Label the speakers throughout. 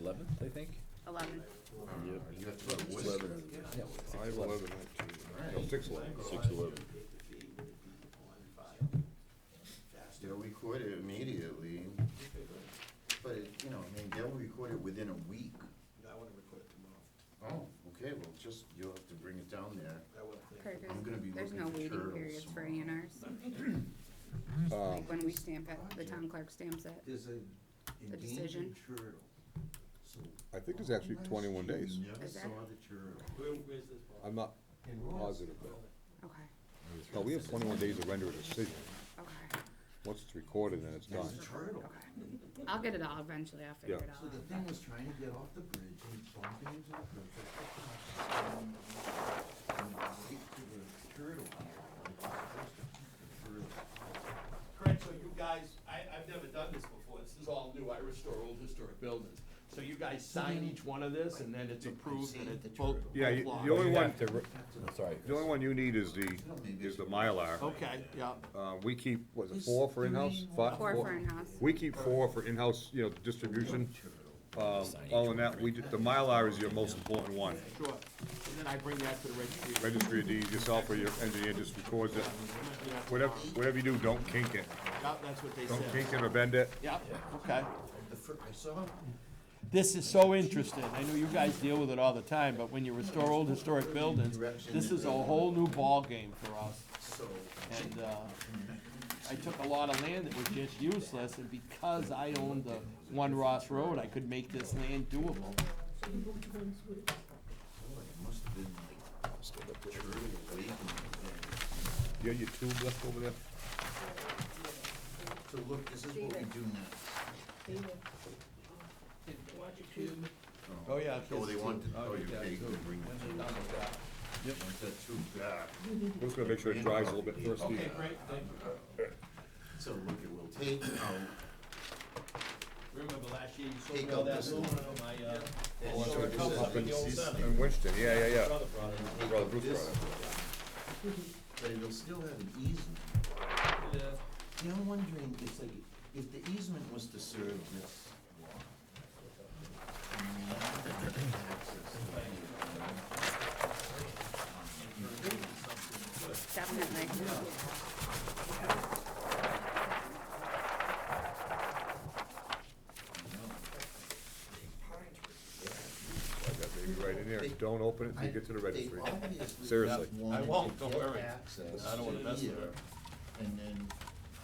Speaker 1: eleventh, I think.
Speaker 2: eleven.
Speaker 1: Yeah.
Speaker 3: Five eleven, actually. No, six eleven.
Speaker 4: Six eleven.
Speaker 5: They'll record it immediately, but, it- you know, I mean, they'll record it within a week.
Speaker 6: I wanna record it tomorrow.
Speaker 5: Oh, okay, well, just, you'll have to bring it down there.
Speaker 6: I will think.
Speaker 2: Kurt,
Speaker 5: I'm gonna be
Speaker 2: there's, there's
Speaker 5: looking
Speaker 2: no
Speaker 5: for
Speaker 2: waiting
Speaker 5: turtles
Speaker 2: periods for A
Speaker 5: tomorrow.
Speaker 2: and Rs. Like when we stamp it, the town clerk stamps it.
Speaker 6: There's a
Speaker 2: decision.
Speaker 6: endangered turtle, so. Oh,
Speaker 3: I think there's actually
Speaker 6: unless
Speaker 3: 21
Speaker 6: you
Speaker 3: days.
Speaker 6: Never
Speaker 2: Is
Speaker 6: saw
Speaker 2: there?
Speaker 6: the turtle.
Speaker 3: I'm not
Speaker 6: In Ross-
Speaker 3: positive though.
Speaker 2: Okay,
Speaker 3: No, we have twenty-one days to render a decision.
Speaker 2: okay,
Speaker 3: Once it's recorded, then it's done.
Speaker 6: There's a turtle.
Speaker 2: okay. I'll get it all eventually, I'll figure
Speaker 3: Yeah.
Speaker 2: it
Speaker 6: So the
Speaker 2: all
Speaker 6: thing was trying to get off the bridge and bumping into the bridge. And right to the turtle.
Speaker 7: Correct, so you guys, I, I've never done this before, this is all new, I restore old historic buildings. So you guys sign each one of this, and then it's approved, and it's both,
Speaker 3: Yeah,
Speaker 7: both
Speaker 3: you-
Speaker 7: laws.
Speaker 3: the only one,
Speaker 4: Sorry.
Speaker 3: the only one you need is the, is the Mylar.
Speaker 7: Okay, yeah,
Speaker 3: Uh, we keep, what is it, four for in-house? Fi-
Speaker 2: Four for in-house.
Speaker 3: We keep four for in-house, you know, distribution. Um, all in that, we, d- the Mylar is your most important one.
Speaker 7: sure, and then I bring that to the registry.
Speaker 3: Registry of deeds yourself or your engineer just records it. Whatever, whatever you do, don't kink it.
Speaker 7: Yeah, that's what they
Speaker 3: Don't
Speaker 7: said.
Speaker 3: kink it or bend it.
Speaker 7: Yeah, okay.
Speaker 6: The fir, I saw
Speaker 7: This is so interesting, I know you guys deal with it all the time, but when you restore old historic buildings, this is a whole new ballgame for us.
Speaker 6: so.
Speaker 7: And uh, I took a lot of land that was just useless, and because I owned the one Ross Road, I could make this land doable.
Speaker 6: Oh, it must have been like turtle waiting
Speaker 3: You got your tube left over there?
Speaker 5: So look, this is what we do now.
Speaker 7: Oh, yeah.
Speaker 5: Oh, they want, to- oh, you take to bring it to, want that too back.
Speaker 3: We're just gonna make sure it dries a little bit first. Steve.
Speaker 7: great, thank you.
Speaker 5: So look, it will take out
Speaker 7: Remember last year, you
Speaker 5: Take out this one.
Speaker 7: my,
Speaker 5: And so
Speaker 7: Sure,
Speaker 5: this
Speaker 7: come
Speaker 5: is
Speaker 7: up with
Speaker 5: been
Speaker 7: the old
Speaker 5: ceased.
Speaker 7: seven.
Speaker 3: In Winston, yeah, yeah, yeah.
Speaker 5: Take
Speaker 3: Brother
Speaker 5: out
Speaker 3: Bruce
Speaker 5: this
Speaker 3: brought
Speaker 5: one. But it'll still have an easement. You know, I'm wondering, if like, if the easement was to serve this lot. and we had access to it,
Speaker 2: definitely.
Speaker 3: Slide that baby right in there. Don't open it till you get to the
Speaker 5: I-
Speaker 3: registry.
Speaker 5: They obviously
Speaker 3: Seriously.
Speaker 5: have wanted
Speaker 7: I won't,
Speaker 5: to
Speaker 7: don't
Speaker 5: get
Speaker 7: worry.
Speaker 5: access
Speaker 7: I don't wanna
Speaker 5: to
Speaker 7: mess with
Speaker 5: here,
Speaker 7: her.
Speaker 5: And then,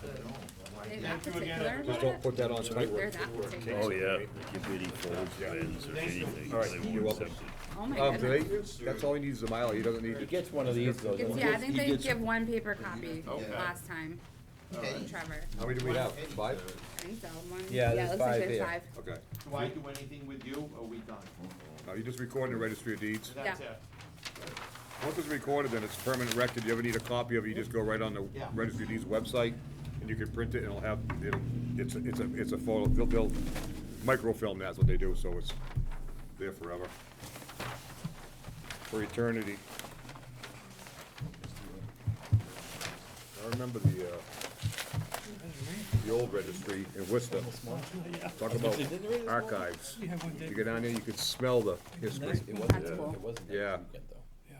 Speaker 5: I don't know, why
Speaker 2: They're
Speaker 5: can't
Speaker 2: that particular
Speaker 3: Just
Speaker 2: about
Speaker 3: don't
Speaker 2: it?
Speaker 3: put that on tight
Speaker 2: They're
Speaker 3: rope.
Speaker 2: that particular.
Speaker 4: Oh, yeah, they give any folds, bends, or anything,
Speaker 3: All right,
Speaker 4: they
Speaker 3: you're
Speaker 4: won't
Speaker 3: welcome.
Speaker 4: accept it.
Speaker 2: Oh, my
Speaker 3: Um, do
Speaker 2: goodness.
Speaker 3: they, that's all he needs is a Mylar. He doesn't
Speaker 4: He
Speaker 3: need,
Speaker 4: gets one of these, though.
Speaker 2: It's,
Speaker 4: doesn't he?
Speaker 2: yeah, I think
Speaker 4: He
Speaker 2: they
Speaker 4: gets-
Speaker 2: give one paper copy last time,
Speaker 5: Okay.
Speaker 2: Trevor.
Speaker 3: how many do we have? Five?
Speaker 2: I think so, one, yeah,
Speaker 4: Yeah,
Speaker 2: it
Speaker 4: there's
Speaker 2: looks like
Speaker 4: five
Speaker 2: there's
Speaker 4: there.
Speaker 2: five.
Speaker 3: Okay.
Speaker 7: Do I do anything with you, or we done?
Speaker 3: Now, you just record in the registry of deeds.
Speaker 7: That's
Speaker 2: Yeah.
Speaker 7: it.
Speaker 3: Once it's recorded, then it's permanent record. You ever need a copy of it, you just go right on the
Speaker 7: Yeah.
Speaker 3: registry of deeds website, and you can print it, and it'll have, it'll, it's, a- it's a, it's a photo, they'll, they'll microfilm, that's what they do, so it's there forever. For eternity. I remember the, uh, the old registry in Worcester. Talk about archives. You go down there, you could smell the history.
Speaker 4: It wasn't,
Speaker 2: That's cool.
Speaker 4: it wasn't
Speaker 3: Yeah.
Speaker 4: that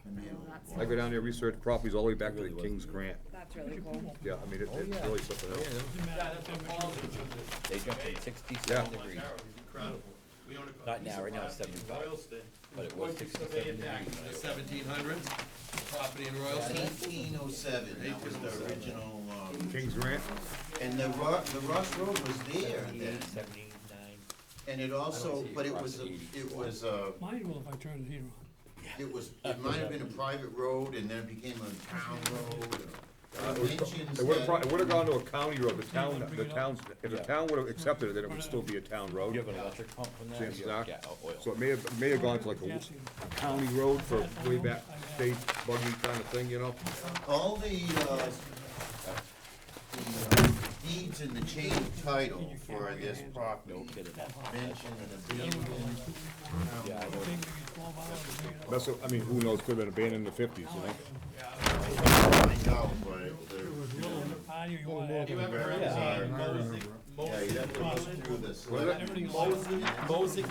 Speaker 4: weekend, though.
Speaker 3: I go down there, research properties all the way back to the King's Grant.
Speaker 2: That's really cool.
Speaker 3: Yeah, I mean, it-
Speaker 4: Oh,
Speaker 3: it's really something else.
Speaker 7: Yeah, that's what Paul did with this.
Speaker 4: They dropped it
Speaker 3: Yeah.
Speaker 4: sixty-seven degrees,
Speaker 7: That was incredible. We owned a
Speaker 4: Not now,
Speaker 7: piece of
Speaker 4: right now it's
Speaker 7: property in
Speaker 4: 75,
Speaker 7: Royalston.
Speaker 4: but it was
Speaker 7: We
Speaker 4: 67
Speaker 7: surveyed back in the seventeen hundreds, property in Royalston.
Speaker 5: Eighteen oh seven, that was the original, um,
Speaker 3: King's Grant?
Speaker 5: and the Ro- the Ross Road was there then,
Speaker 4: seventy-nine.
Speaker 5: and it also, but it was, a-
Speaker 4: Across the
Speaker 5: it was, uh,
Speaker 8: Mine will if I turn the heater on.
Speaker 5: it was, it might have been a private road, and then it became a town road, or
Speaker 3: It
Speaker 5: mentions
Speaker 3: would've, pro-
Speaker 5: that-
Speaker 3: it would've gone to a county road, the town, the towns, if the town would've accepted it, then it would still be a town road.
Speaker 4: You have an electric pump from that?
Speaker 3: Chances are.
Speaker 4: Yeah, oh,
Speaker 3: So
Speaker 4: oil.
Speaker 3: it may have, it may have gone to like a
Speaker 8: Yes, you-
Speaker 3: county road for way back, state buggy kind of thing, you know?
Speaker 5: All the, uh, the uh, deeds in the chain of title for this property mention an abandoned
Speaker 4: Yeah, I know.
Speaker 8: Take maybe 12 hours to bring it up.
Speaker 3: That's, what- I mean, who knows, could've been abandoned in the fifties, you know?
Speaker 5: find out, but it- they're-
Speaker 8: Ah, you- you want
Speaker 7: You
Speaker 8: to
Speaker 7: ever heard of
Speaker 5: Yeah.
Speaker 7: Mosaic,
Speaker 5: yeah, you have to go through the select-
Speaker 7: uh, Mosaic, Mosaic